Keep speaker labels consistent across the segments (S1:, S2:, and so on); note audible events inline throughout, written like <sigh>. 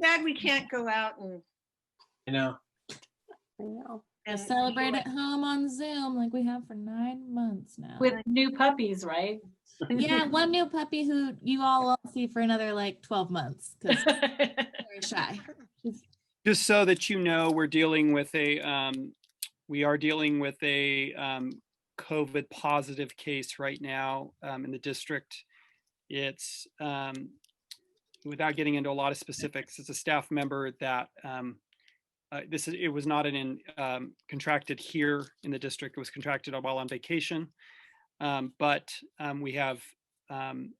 S1: sad we can't go out and.
S2: you know,
S3: I know.
S1: and
S4: Celebrate
S1: enjoy.
S4: at home on Zoom like we have for nine months now.
S5: with new puppies, right?
S4: yeah, one new puppy who you all won't see for another like 12 months because very shy.
S6: Just so that you know, we're dealing with a, um, we are dealing with a, um, COVID positive case right now, um, in the district. It's, um, without getting into a lot of specifics, it's a staff member that, um, uh, this is, it was not an, in- um, contracted here in the district. It was contracted while on vacation. Um, but, um, we have, um,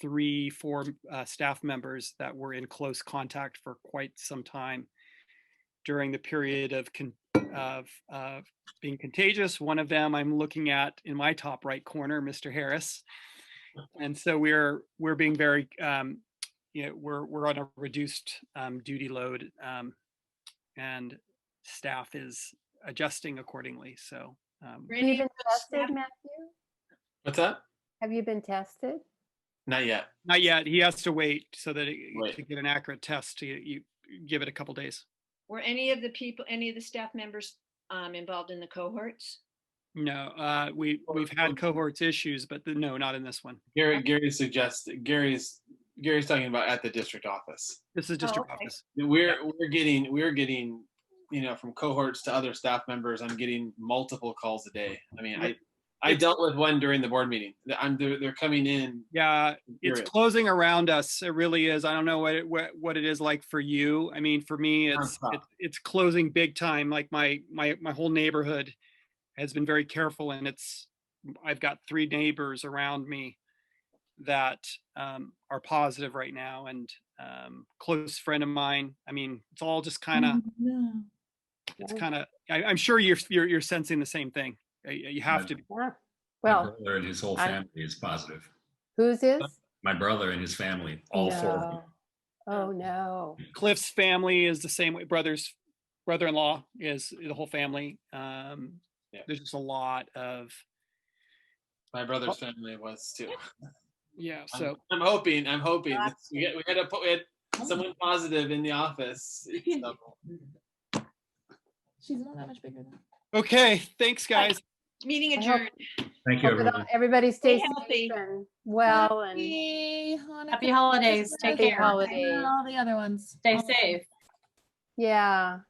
S6: three, four uh, staff members that were in close contact for quite some time during the period of con- of, of being contagious. One of them I'm looking at in my top right corner, Mr. Harris. And so we're we're being very um, you know we're we're on a reduced um, duty load um, and staff is adjusting accordingly. So um,
S3: Have you
S1: Randy,
S3: been tested, Matthew?
S2: what's that?
S3: Have you been tested?
S2: Not yet.
S6: Not yet. He has to wait so that it,
S2: Right.
S6: to get an accurate test, you, you give it a couple days.
S1: Were any of the people, any of the staff members um, involved in the cohorts?
S6: No, uh, we,
S2: Or-
S6: we've
S2: or-
S6: had cohorts issues, but the- no, not in this one.
S2: Gary, Gary suggests, Gary's, Gary's talking about at the district office.
S6: This is district
S1: okay.
S6: office.
S2: We're, we're getting, we're getting, you know, from cohorts to other staff members, I'm getting multiple calls a day. I mean, I, I dealt with one during the board meeting. I'm, they're, they're coming in.
S6: Yeah, it's
S2: period.
S6: closing around us. It really is. I don't know what, it- what, what it is like for you. I mean, for me, it's,
S2: Nonstop.
S6: it's- it's closing big time. Like my, my, my whole neighborhood has been very careful and it's, I've got three neighbors around me that, um, are positive right now and, um, close friend of mine. I mean, it's all just kind of,
S4: Yeah.
S3: Mm-hmm.
S6: it's
S3: Yeah.
S6: kind of, I, I'm sure you're, you're, you're sensing the same thing. Uh, You you have
S7: Yeah.
S6: to be.
S3: Yeah.
S7: My
S3: Well,
S7: brother And his whole
S3: I-
S7: family is positive.
S3: whose is?
S7: My brother and his family, all four of them.
S3: No. Oh, no.
S6: Cliff's family is the same way. Brothers, brother-in-law is the whole family. Um,
S2: Yeah.
S6: there's just a lot of
S2: My brother's family was too.
S6: yeah.
S2: I'm-
S6: So
S2: I'm hoping, I'm hoping. that We had, we had a, po- we had someone positive in the <laughs> office. so-
S4: She's not that much bigger than.
S6: okay, thanks guys.
S1: Meeting
S3: I hope-
S1: adjourned.
S7: Thank you,
S3: Hope it all-
S7: everyone.
S3: Everybody stays
S1: healthy.
S3: safe and well and
S4: Happy Hanukkah,
S5: Happy holidays. Take
S3: Happy
S5: care.
S3: holidays.
S4: And all the other ones.
S5: Stay
S4: All-
S5: safe.
S3: yeah,